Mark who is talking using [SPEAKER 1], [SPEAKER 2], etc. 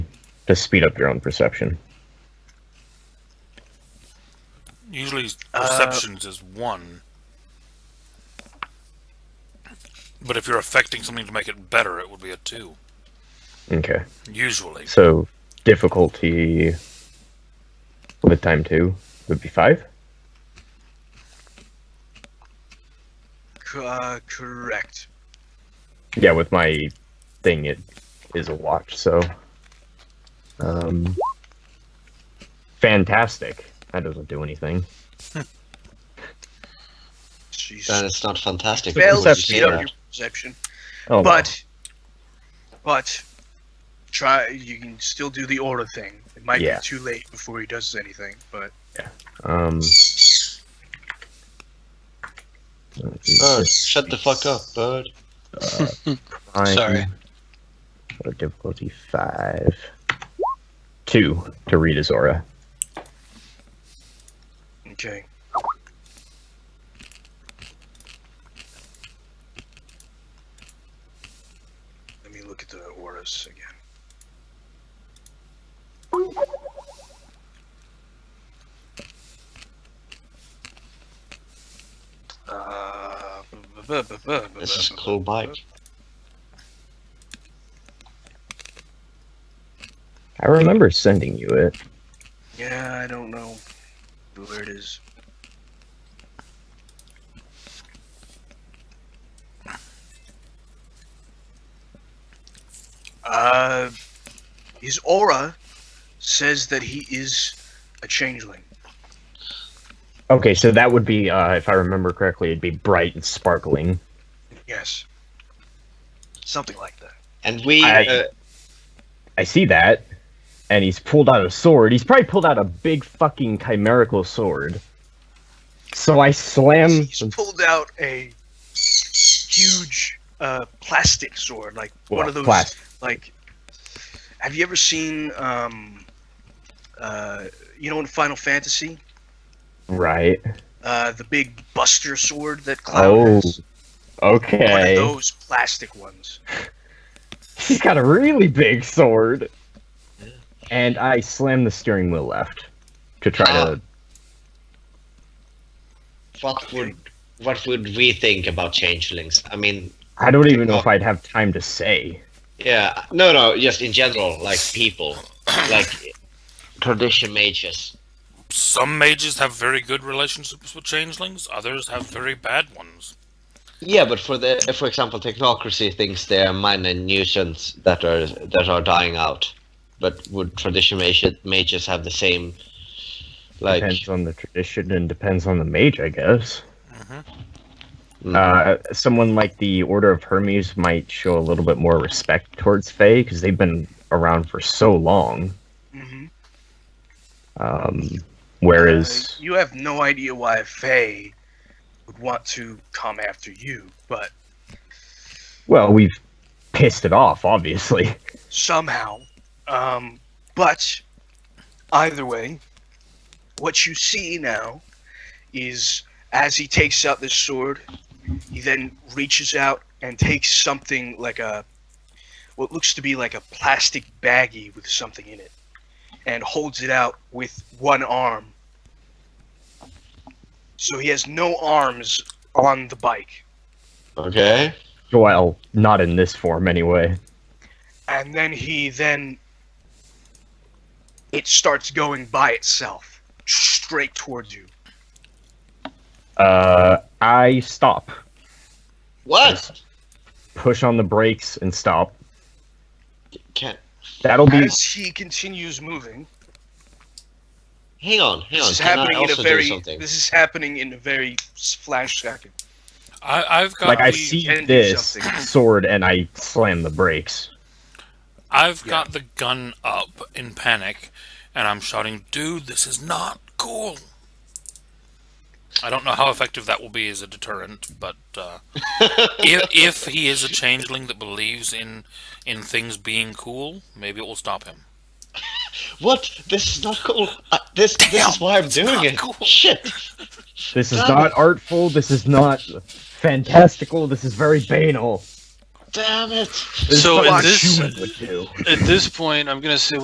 [SPEAKER 1] to speed up your own perception.
[SPEAKER 2] Usually
[SPEAKER 3] Uh,
[SPEAKER 2] perceptions is one. But if you're affecting something to make it better, it would be a two.
[SPEAKER 1] Okay.
[SPEAKER 2] Usually.
[SPEAKER 1] So difficulty with time two would be five.
[SPEAKER 3] C- uh, correct.
[SPEAKER 1] Yeah, with my thing, it is a watch. So, um, fantastic. That doesn't do anything.
[SPEAKER 3] Jeez.
[SPEAKER 4] Then it's not fantastic.
[SPEAKER 3] Fail
[SPEAKER 4] because
[SPEAKER 1] Perception,
[SPEAKER 3] to
[SPEAKER 4] you see
[SPEAKER 3] speed up
[SPEAKER 4] that.
[SPEAKER 3] your perception,
[SPEAKER 1] Oh, well.
[SPEAKER 3] but but try. You can still do the aura thing. It might
[SPEAKER 1] Yeah.
[SPEAKER 3] be too late before he does anything, but
[SPEAKER 1] um,
[SPEAKER 4] Bird, Oh, shut the fuck up, bird.
[SPEAKER 1] Fine.
[SPEAKER 4] Sorry.
[SPEAKER 1] What a difficulty five. Two to read his aura.
[SPEAKER 3] okay. Let me look at the auras again. Uh, bu- bu- bu- bu- bu-
[SPEAKER 4] This is
[SPEAKER 3] bu- bu-
[SPEAKER 4] cool bike.
[SPEAKER 1] I remember sending you it.
[SPEAKER 3] Yeah, I don't know where it is. Uh, his aura says that he is a changeling.
[SPEAKER 1] Okay, so that would be, uh, if I remember correctly, it'd be bright and sparkling.
[SPEAKER 3] Yes, something like that.
[SPEAKER 4] And we,
[SPEAKER 1] I-
[SPEAKER 4] uh,
[SPEAKER 1] I see that, and he's pulled out a sword. He's probably pulled out a big fucking chimerical sword. So I slam.
[SPEAKER 3] He's pulled out a huge uh, plastic sword, like one
[SPEAKER 1] well,
[SPEAKER 3] of those
[SPEAKER 1] plas-
[SPEAKER 3] like have you ever seen um uh you know in final fantasy
[SPEAKER 1] Right.
[SPEAKER 3] uh the big buster sword that cloud
[SPEAKER 1] Oh,
[SPEAKER 3] has? one of
[SPEAKER 1] Okay.
[SPEAKER 3] those plastic ones
[SPEAKER 1] He's got a really big sword. And I slam the steering wheel left to try to.
[SPEAKER 4] what would what would we think about changelings? I mean,
[SPEAKER 3] Ah.
[SPEAKER 1] I don't even know if I'd have time to say.
[SPEAKER 4] yeah, no, no, just in general, like people, like tradition mages.
[SPEAKER 2] Some mages have very good relationships with changelings, others have very bad ones.
[SPEAKER 4] Yeah, but for the, for example, technocracy thinks they are minor nuisance that are that are dying out. But would tradition mages, mages have the same, like?
[SPEAKER 1] depends on the tradition and depends on the mage, I guess.
[SPEAKER 4] mm,
[SPEAKER 1] Uh, someone like the Order of Hermes might show a little bit more respect towards Fae because they've been around for so long.
[SPEAKER 3] mm-hmm. Uh,
[SPEAKER 1] Um, whereas,
[SPEAKER 3] you have no idea why faye would want to come after you but
[SPEAKER 1] well, we've pissed it off, obviously.
[SPEAKER 3] somehow. Um, but either way, what you see now is as he takes out this sword, he then reaches out and takes something like a what looks to be like a plastic baggie with something in it and holds it out with one arm. So he has no arms on the bike.
[SPEAKER 4] okay.
[SPEAKER 1] Well, not in this form anyway.
[SPEAKER 3] and then he then it starts going by itself straight towards you
[SPEAKER 1] Uh, I stop,
[SPEAKER 4] What?
[SPEAKER 1] push on the brakes, and stop.
[SPEAKER 4] Can
[SPEAKER 1] That'll
[SPEAKER 4] Mm-hmm.
[SPEAKER 1] be
[SPEAKER 3] as he continues moving
[SPEAKER 4] hang on, hang
[SPEAKER 3] this
[SPEAKER 4] on.
[SPEAKER 3] is
[SPEAKER 4] Can I
[SPEAKER 3] happening in a
[SPEAKER 4] also do
[SPEAKER 3] very
[SPEAKER 4] something?
[SPEAKER 3] this is happening in a very s- flash second
[SPEAKER 2] I, I've got
[SPEAKER 1] like I
[SPEAKER 2] the,
[SPEAKER 1] see
[SPEAKER 3] and do
[SPEAKER 1] this
[SPEAKER 3] something.
[SPEAKER 1] sword and I slam the brakes.
[SPEAKER 2] I've
[SPEAKER 3] Yeah.
[SPEAKER 2] got the gun up in panic, and I'm shouting, "Dude, this is not cool." I don't know how effective that will be as a deterrent, but uh, if, if he is a changeling that believes in in things being cool, maybe it will stop him.
[SPEAKER 4] What? This is not cool. Uh, this this is why I'm doing
[SPEAKER 2] not
[SPEAKER 4] it.
[SPEAKER 2] cool.
[SPEAKER 4] Shit.
[SPEAKER 1] This is
[SPEAKER 4] Damn
[SPEAKER 1] not artful. This is not fantastical. This is very banal.
[SPEAKER 4] Damn it.
[SPEAKER 1] This
[SPEAKER 5] So
[SPEAKER 1] is
[SPEAKER 5] is
[SPEAKER 1] what
[SPEAKER 5] this-
[SPEAKER 1] humans would do.
[SPEAKER 5] At this point, I'm gonna say